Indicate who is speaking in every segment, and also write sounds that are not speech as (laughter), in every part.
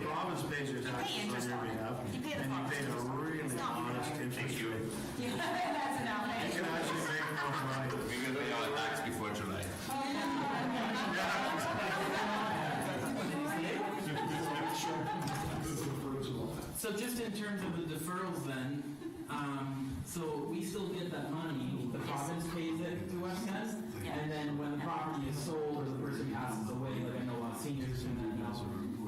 Speaker 1: pays your
Speaker 2: pay
Speaker 1: taxes
Speaker 2: interest
Speaker 1: on
Speaker 2: on
Speaker 1: your
Speaker 2: it.
Speaker 1: behalf.
Speaker 2: You pay the
Speaker 1: And you pay a
Speaker 2: cost. It's
Speaker 1: really
Speaker 2: not-
Speaker 1: honest interest
Speaker 3: you.
Speaker 1: rate.
Speaker 2: Yeah, that's enough.
Speaker 1: You can actually make more money.
Speaker 3: We're gonna pay our tax before July.
Speaker 4: So just in terms of the deferrals then, um, so we still get that money, the province pays it to us guys, and then when the property is sold or the person passes away, like I know a lot of seniors and then,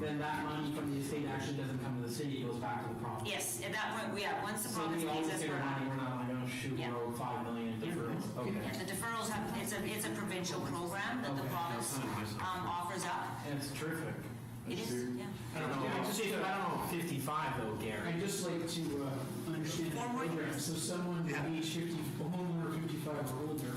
Speaker 4: then that money from the estate actually doesn't come to the city, it goes back to the province.
Speaker 2: Yes, at that point, we, yeah, once the
Speaker 4: So
Speaker 2: province
Speaker 4: we
Speaker 2: pays
Speaker 4: always
Speaker 2: us,
Speaker 4: get
Speaker 2: we're
Speaker 4: our money,
Speaker 2: out.
Speaker 4: we're not like, oh shoot,
Speaker 2: Yeah.
Speaker 4: we're owed five million in deferrals,
Speaker 2: Yeah,
Speaker 4: okay.
Speaker 2: the deferrals have, it's a, it's a provincial program that the
Speaker 4: Okay.
Speaker 2: province, um, offers up.
Speaker 4: That's terrific.
Speaker 2: It is, yeah.
Speaker 4: I don't know, I don't know, fifty-five though, Gary.
Speaker 5: I'd just like to uh, understand the
Speaker 2: Forward.
Speaker 5: program. So someone
Speaker 1: Yeah.
Speaker 5: who is 50, a homeowner 55 or older,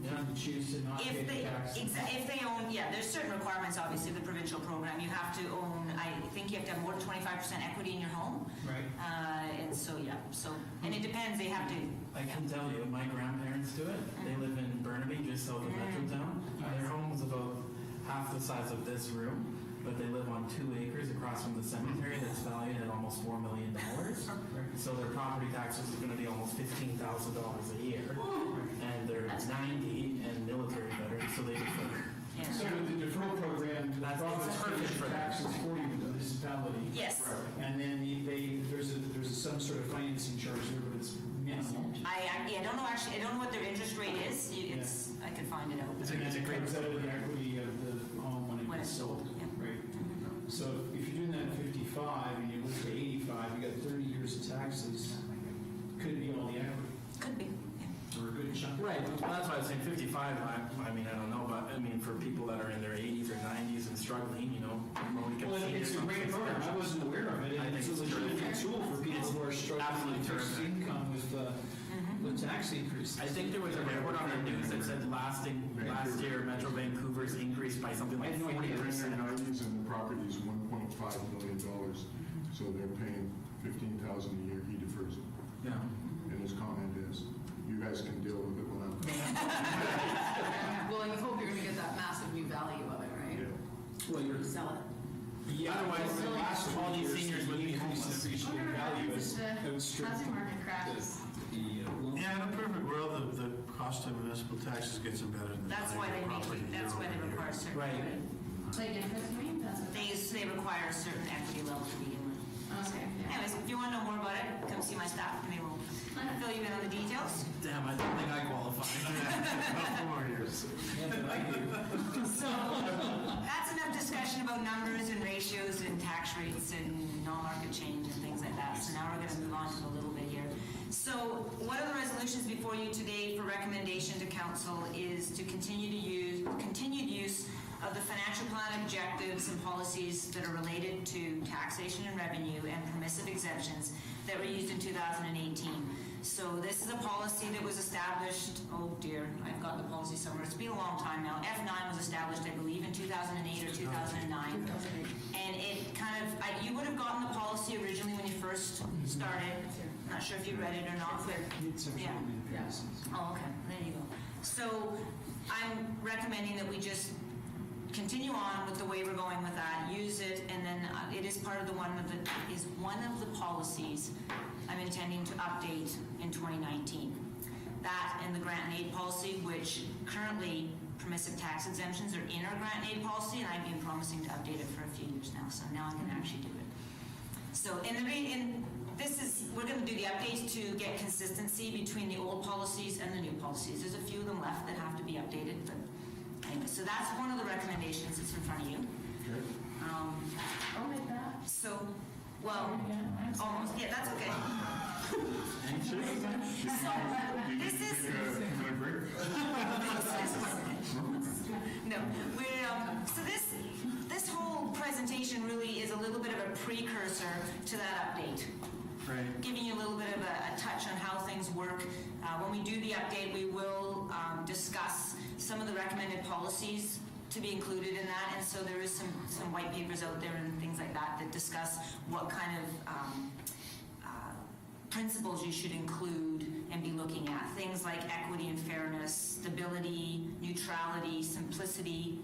Speaker 5: can choose to not pay
Speaker 2: If
Speaker 5: the
Speaker 2: they,
Speaker 5: taxes.
Speaker 2: exa- if they own, yeah, there's certain requirements, obviously, the provincial program. You have to own, I think you have to have more than twenty-five percent equity in your home.
Speaker 5: Right.
Speaker 2: Uh, and so, yeah, so, and it depends, they have to,
Speaker 4: I can tell you, my grandparents do it.
Speaker 5: Mm.
Speaker 4: They live in Burnaby, just south of Metrotown. Their home is about half the size of this room, but they live on two acres across from the cemetery that's valued at almost four million
Speaker 5: (laughs)
Speaker 4: dollars. So their property taxes are gonna be almost fifteen thousand dollars a year. And they're ninety and military veterans, so they defer.
Speaker 2: yeah.
Speaker 5: So with the deferral program, the
Speaker 4: That's-
Speaker 5: province
Speaker 4: that's perfect
Speaker 5: pays
Speaker 4: for them.
Speaker 5: taxes for you, the municipality.
Speaker 2: Yes.
Speaker 5: And then the- they, there's a, there's some sort of financing charge there, but it's minimal.
Speaker 2: I, I, yeah, I don't know actually, I don't know what their interest rate is. You- It's, I could find it out.
Speaker 5: It's a great set of the equity of the home when it
Speaker 2: When
Speaker 5: gets
Speaker 2: it's
Speaker 5: sold,
Speaker 2: sold, yeah.
Speaker 5: right? So if you're doing that at 55 and you live to 85, you got 30 years of taxes, could be all the equity,
Speaker 2: Could be.
Speaker 5: or a good chunk.
Speaker 4: Right, well, that's why I was saying fifty-five, I, I mean, I don't know, but I mean, for people that are in their eighties or nineties and struggling, you know, low income
Speaker 5: Well, it's a
Speaker 4: seniors,
Speaker 5: great program, I wasn't aware of it,
Speaker 4: I
Speaker 5: and
Speaker 4: think
Speaker 5: it's a
Speaker 4: it's
Speaker 5: legitimate
Speaker 4: terrific.
Speaker 5: tool for people
Speaker 4: It's
Speaker 5: who are struggling
Speaker 4: absolutely
Speaker 5: with fixed
Speaker 4: terrific. Mm-hmm.
Speaker 5: income with the, the tax increases.
Speaker 4: I think there was a report on the news that said lasting, last year Metro Vancouver's increased by something like
Speaker 6: Between
Speaker 4: forty
Speaker 6: the
Speaker 4: percent.
Speaker 6: nineties and the property is one point five million dollars, so they're paying fifteen thousand a year, he defers it.
Speaker 4: Yeah.
Speaker 6: And his comment is, you guys can deal with it when I'm done.
Speaker 7: (laughs) Well, you hope you're gonna get that massive new value of it, right?
Speaker 5: Well, you're,
Speaker 7: Sell it.
Speaker 5: yeah,
Speaker 4: Otherwise,
Speaker 5: over the last
Speaker 4: all these
Speaker 5: 20 years,
Speaker 4: seniors
Speaker 5: the
Speaker 4: would be
Speaker 5: increase in
Speaker 4: homeless.
Speaker 5: appreciated value is outstripped
Speaker 7: Housing
Speaker 5: the-
Speaker 7: market crashes.
Speaker 5: the, uh, loan.
Speaker 1: Yeah, in a perfect world, the, the cost of municipal taxes gets embedded in the
Speaker 2: That's why
Speaker 1: value of
Speaker 2: they make,
Speaker 1: property
Speaker 2: it- that's
Speaker 1: year
Speaker 2: why
Speaker 1: over
Speaker 2: they
Speaker 1: year. (laughs)
Speaker 2: require a certain.
Speaker 4: Right.
Speaker 2: equity.
Speaker 7: Play difference rate, that's what.
Speaker 2: They, they require a certain equity level to begin with.
Speaker 7: Okay, yeah.
Speaker 2: Anyways, if you want to know more about it, come see my staff and they will fill you in on the details.
Speaker 4: Damn, I don't think I qualify.
Speaker 1: About four years.
Speaker 2: That's enough discussion about numbers and ratios and tax rates and non-market change and things like that. So now we're going to move on to a little bit here. So one of the resolutions before you today for recommendation to council is to continue to use, continued use of the financial plan objectives and policies that are related to taxation and revenue and permissive exemptions that were used in 2018. So this is a policy that was established, oh dear, I've got the policy somewhere, it's been a long time now. F9 was established, I believe, in 2008 or 2009. And it kind of, I- you would have gotten the policy originally when you first started. Not sure if you read it or not, but
Speaker 5: It's actually
Speaker 2: Yeah.
Speaker 5: made a
Speaker 7: Yeah.
Speaker 5: difference.
Speaker 2: Oh, okay, there you go. So I'm recommending that we just continue on with the way we're going with that, use it, and then uh, it is part of the one of the, is one of the policies I'm intending to update in 2019. That and the grant and aid policy, which currently permissive tax exemptions are in our grant and aid policy, and I've been promising to update it for a few years now, so now I'm gonna actually do it. So, and the re- and this is, we're gonna do the updates to get consistency between the old policies and the new policies. There's a few of them left that have to be updated, but anyway, so that's one of the recommendations that's in front of you.
Speaker 6: Okay.
Speaker 2: Um,
Speaker 7: Oh, my God.
Speaker 2: so, well, almost, yeah, that's okay. So, this is.
Speaker 6: Can I break?
Speaker 2: No, we're, um, so this, this whole presentation really is a little bit of a precursor to that update. Right. Giving you a little bit of a, a touch on how things work. Uh, when we do the update, we will, um, discuss some of the recommended policies to be included in that. And so there is some, some white papers out there and things like that that discuss what kind of, um, uh, principles you should include and be looking at. Things like equity and fairness, stability, neutrality, simplicity,